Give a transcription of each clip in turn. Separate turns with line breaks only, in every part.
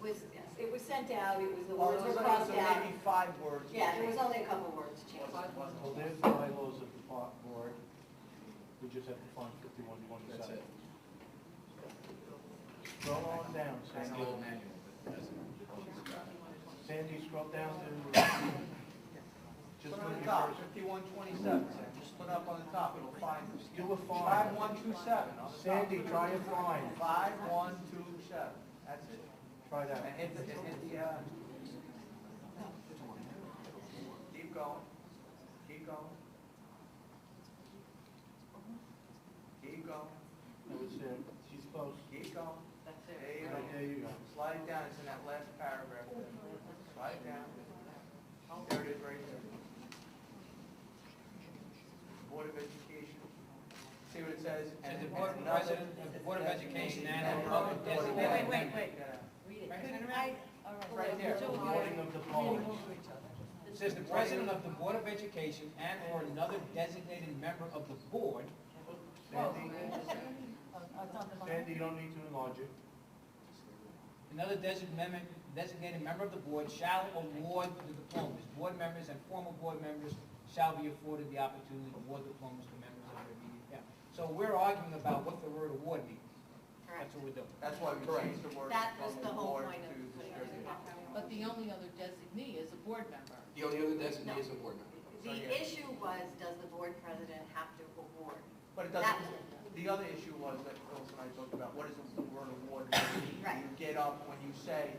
was, it was sent out, it was, the
Oh,
Well, it
words were
was
crossed out.
maybe five words.
Yeah, there was only a couple words changed.
Wasn't- wasn't-
Well, there's the bylaws of the park board. We just have to find fifty-one, you want to
That's
decide.
it.
Scroll on down,
It's the
Sandy.
old manual, but it doesn't.
Sandy, scroll down to, just
Put
put
on
your
the top,
first.
fifty-one twenty-seven, just put up on the top, it'll find us.
Do a
Five,
find.
one, two, seven, on the top.
Sandy, try and find.
Five, one, two, seven, that's it.
Try
And
that.
hit the, and hit the, uh. Keep going, keep going. Keep going,
That was it. She's close.
keep going,
That's
there you go.
Right, there you go.
Slide it down, it's in that last paragraph. there. Slide it down. There it is, right there. Board of Education. See what it says?
And the
And
board,
another-
president of the Board of Education and
And
the public
another board.
Wait,
designated.
wait, wait,
Yeah.
Read it.
Right.
Couldn't I, all right.
Right there.
Two of you.
Warning of the polls.
It Says the president of the Board of Education and or another designated member of the board.
Sandy,
Oh, it's on the bottom.
Sandy, you don't need to enlarge it.
Another designated member, designated member of the board shall award the diplomas. Board members and former board members shall be afforded the opportunity to award diplomas to members of their immediate family. So we're arguing about what the word award means. That's what we're doing.
That's why we changed the word.
That was
from
the whole
board
point
to
of putting
distributed.
it back.
But the only other designee is a board member.
The only other designee is a board member.
The issue was, does the board president have to award?
But it
That-
doesn't, the other issue was that Phyllis and I talked about, what is the word award? mean?
Right.
You get up when you say,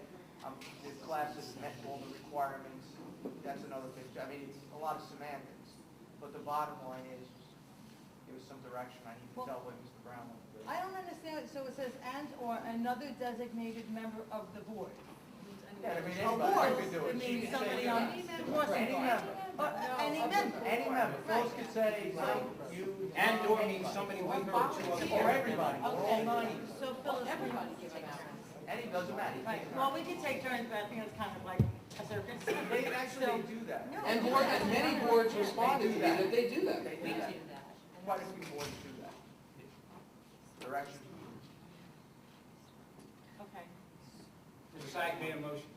um, this class has met all the requirements, that's another thing. I mean, it's a lot of semantics, but the bottom line is, give us some direction, I need to
Well-
tell what Mr. Brown wants to do.
I don't understand, so it says and/or another designated member of the board.
Yeah, I mean,
Board,
anybody could do it.
it
She
means
could say
somebody
that.
on the board.
Any member,
Or, uh, Any member.
any member, Phyllis could say,
Right.
you.
And or means somebody with her or to
Or everybody, or all
Okay.
ninety,
So Phyllis. Everybody gives an
any, doesn't matter. you
Right,
can't-
well, we could take turns, but I think it's kind of like a circus.
They actually do that.
No.
And board, and many boards responded to me that they do that.
They do that. Quite a few boards do that. Direction.
Okay.
Mr. Sack made a motion.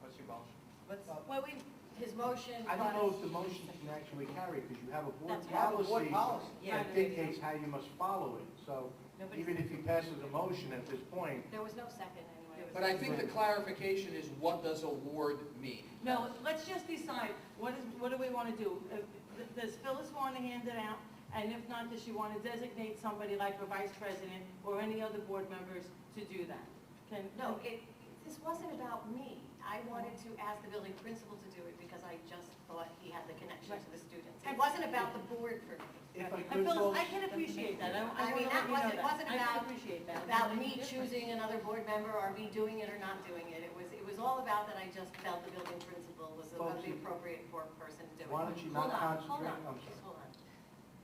What's your motion?
Let's-
Well, we, his motion
I don't know
was,
if the motion can actually carry, because you have a board
That's
You have a board
policy
policy.
Yeah.
that dictates how you must follow it. So
Nobody's-
even if he passes a motion at this point,
there was no second anyway.
But I think the clarification is what does award mean?
No, let's just decide, what is, what do we want to do? If- Does Phyllis want to hand it out? And if not, does she want to designate somebody like her vice president or any other board members to do that? Can,
No, it, this wasn't about me. I wanted to ask the building principal to do it because I just thought he had the connection to the students. It wasn't about the board for me.
if I
And
could,
Phyllis,
folks,
I can appreciate that, I
I
I
mean,
want to let
that
you know
wasn't-
that. I
wasn't
can
about-
appreciate that.
about me choosing another board member or me doing it or not doing it. It was, it was all about that I just felt the building principal was the was the appropriate for person to do it.
Why don't you
Hold on,
not concentrate?
Hold on,
I'm
just
sorry.
hold on.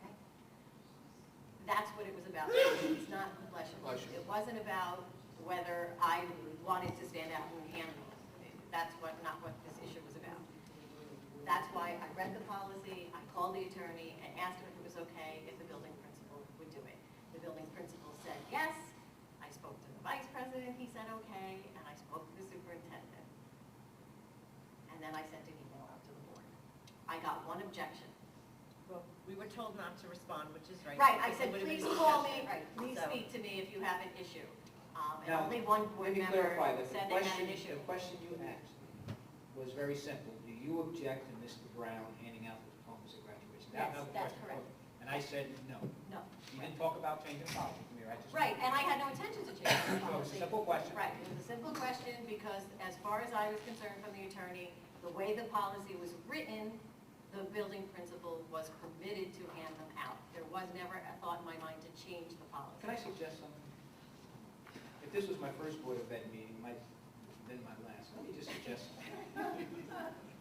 Okay? That's what it was about. It's not, bless you.
Bless you.
It wasn't about whether I wanted to stand out and handle it. That's what, not what this issue was about. That's why I read the policy, I called the attorney and asked him if it was okay if the building principal would do it. The building principal said yes. I spoke to the vice president, he said okay, and I spoke to the superintendent. And then I sent an email out to the board. I got one objection.
Well, we were told not to respond, which is right.
Right,
because
I
it
said,
would've been
please call
discussion.
me, right, please
So-
speak to me if you have an issue. Um, And
Now,
only one board
Let me
member
clarify that. The
said they had
question,
an issue.
the question you asked was very simple. Do you object to Mr. Brown handing out the diplomas at graduation? That
Yes,
was the
that's
question.
correct.
And I said, no.
No.
You didn't talk about changing policy from here. I just.
Right, and I had no intention to change the
So it's a
policy.
simple question.
Right, it was a simple question because as far as I was concerned from the attorney, the way the policy was written, the building principal was permitted to hand them out. There was never a thought in my mind to change the
Can
policy.
I suggest something? If this was my first Board of Ed meeting, my, then my last, let me just suggest something.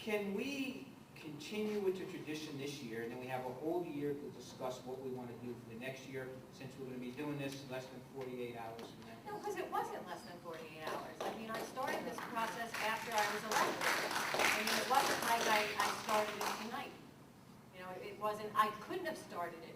Can we continue with the tradition this year, and then we have a whole year to discuss what we want to do for the next year, since we're going to be doing this less than forty-eight hours from now?
No, because it wasn't less than 48 hours. I mean, I started this process after I was elected. I mean, it wasn't like I, I started it tonight. You know, it wasn't, I couldn't have started it